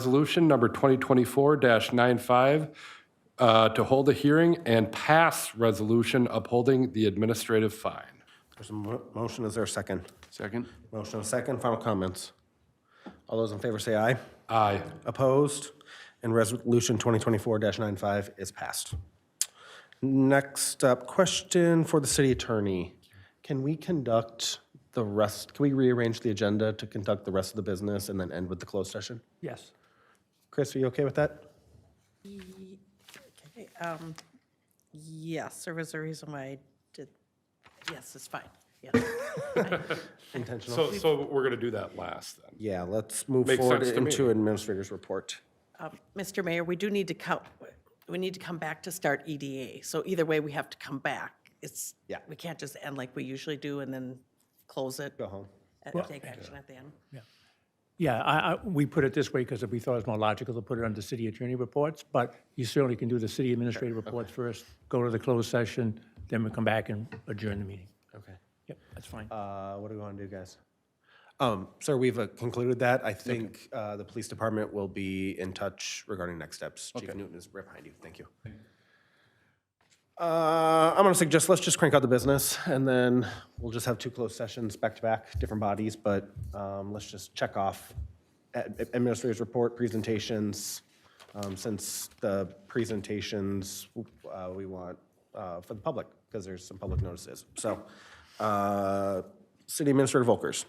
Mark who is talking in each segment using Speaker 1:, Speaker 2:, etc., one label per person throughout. Speaker 1: Resolution number 2024-95 uh, to hold a hearing and pass resolution upholding the administrative fine.
Speaker 2: There's a mo- motion, is there a second?
Speaker 3: Second?
Speaker 2: Motion, and a second, final comments. All those in favor say aye.
Speaker 1: Aye.
Speaker 2: Opposed? And Resolution 2024-95 is passed. Next up, question for the city attorney. Can we conduct the rest, can we rearrange the agenda to conduct the rest of the business and then end with the closed session?
Speaker 4: Yes.
Speaker 2: Chris, are you okay with that?
Speaker 5: Um, Yes, there was a reason why I did, yes, it's fine, yes.
Speaker 2: Intentional?
Speaker 1: So, so we're going to do that last then.
Speaker 2: Yeah, let's move
Speaker 1: Makes
Speaker 2: forward
Speaker 1: sense to me.
Speaker 2: into administrator's report.
Speaker 5: Um, Mr. Mayor, we do need to come, we need to come back to start EDA, so either way, we have to come back. It's,
Speaker 2: Yeah.
Speaker 5: we can't just end like we usually do and then close it
Speaker 2: Go home.
Speaker 5: and take action at the end.
Speaker 4: Yeah, I, I, we put it this way because we thought it was more logical to put it under city attorney reports, but you certainly can do the city administrative reports first, go to the closed session, then we come back and adjourn the meeting.
Speaker 2: Okay.
Speaker 4: Yep, that's fine.
Speaker 2: Uh, What do we want to do, guys? Um, Sir, we've uh, concluded that. I think uh, the police department will be in touch regarding next steps. Chief Newton is right behind you. Thank you. Uh, I'm going to suggest, let's just crank out the business, and then we'll just have two closed sessions back-to-back, different bodies, but um, let's just check off ad- administrator's report, presentations. um, Since the presentations, uh, we want uh, for the public, because there's some public notices. So, uh, City Administrator Volkers.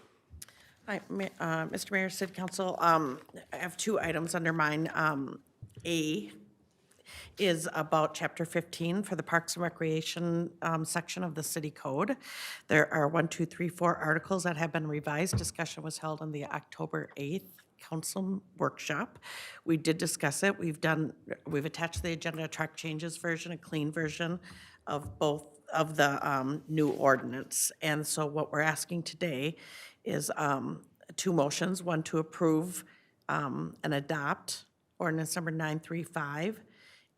Speaker 5: Hi, Ma- uh, Mr. Mayor, City Council, um, I have two items under mine. Um, A is about Chapter 15 for the Parks and Recreation um, section of the city code. There are one, two, three, four articles that have been revised. Discussion was held on the October 8th council workshop. We did discuss it. We've done, we've attached the agenda, a track changes version, a clean version of both of the um, new ordinance. And so what we're asking today is um, two motions, one to approve um, and adopt ordinance number 935,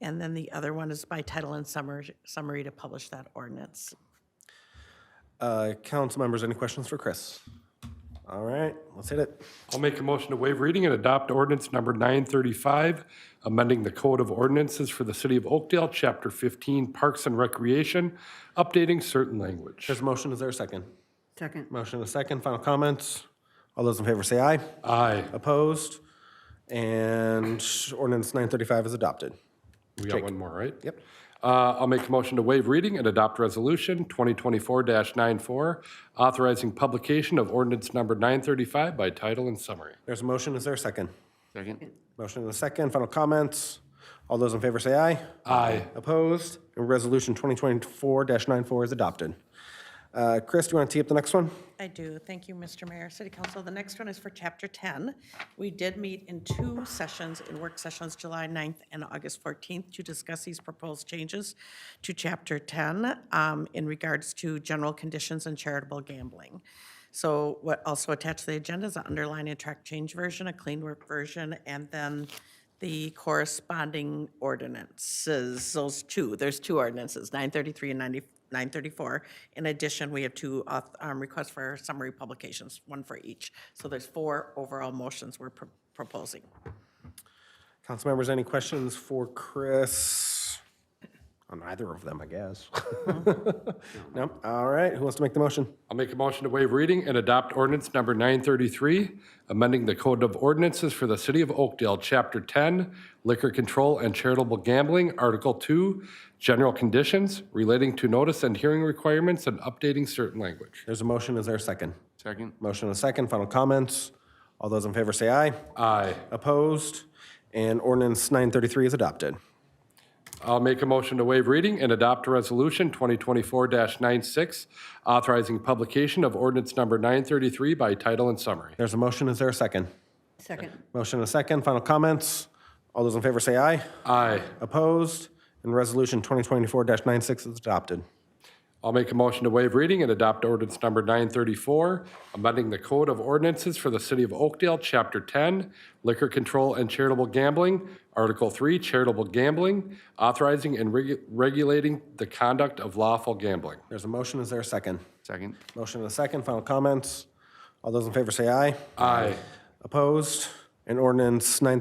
Speaker 5: and then the other one is by title and summary summary to publish that ordinance.
Speaker 2: Uh, Council members, any questions for Chris? All right, let's hit it.
Speaker 1: I'll make a motion to waive reading and adopt ordinance number 935, amending the Code of Ordinances for the City of Oakdale, Chapter 15, Parks and Recreation, updating certain language.
Speaker 2: There's a motion, is there a second?
Speaker 6: Second.
Speaker 2: Motion and a second, final comments. All those in favor say aye.
Speaker 1: Aye.
Speaker 2: Opposed? And ordinance 935 is adopted.
Speaker 1: We got one more, right? Yep. Uh, I'll make a motion to waive reading and adopt resolution 2024-94, authorizing publication of ordinance number 935 by title and summary.
Speaker 2: There's a motion, is there a second?
Speaker 3: Second?
Speaker 2: Motion and a second, final comments. All those in favor say aye.
Speaker 1: Aye.
Speaker 2: Opposed? And resolution 2024-94 is adopted. Uh, Chris, do you want to tee up the next one?
Speaker 5: I do. Thank you, Mr. Mayor, City Council. The next one is for Chapter 10. We did meet in two sessions, in work sessions, July 9th and August 14th, to discuss these proposed changes to Chapter 10 um, in regards to general conditions and charitable gambling. So what also attached to the agenda is an underline and track change version, a clean work version, and then the corresponding ordinances, those two, there's two ordinances, 933 and 90 934. In addition, we have two auth- um, requests for summary publications, one for each. So there's four overall motions we're pro- proposing.
Speaker 2: Council members, any questions for Chris? On either of them, I guess. No? All right, who wants to make the motion?
Speaker 1: I'll make a motion to waive reading and adopt ordinance number 933, amending the Code of Ordinances for the City of Oakdale, Chapter 10, Liquor Control and Charitable Gambling, Article 2, General Conditions relating to notice and hearing requirements and updating certain language.
Speaker 2: There's a motion, is there a second?
Speaker 3: Second?
Speaker 2: Motion and a second, final comments. All those in favor say aye.
Speaker 1: Aye.
Speaker 2: Opposed? And ordinance 933 is adopted.
Speaker 1: I'll make a motion to waive reading and adopt Resolution 2024-96, authorizing publication of ordinance number 933 by title and summary.
Speaker 2: There's a motion, is there a second?
Speaker 6: Second.
Speaker 2: Motion and a second, final comments. All those in favor say aye.
Speaker 1: Aye.
Speaker 2: Opposed? And resolution 2024-96 is adopted.
Speaker 1: I'll make a motion to waive reading and adopt ordinance number 934, amending the Code of Ordinances for the City of Oakdale, Chapter 10, Liquor Control and Charitable Gambling, Article 3, Charitable Gambling, authorizing and regu- regulating the conduct of lawful gambling.
Speaker 2: There's a motion, is there a second?
Speaker 3: Second?
Speaker 2: Motion and a second, final comments. All those in favor say aye.
Speaker 1: Aye.
Speaker 2: Opposed? And ordinance 933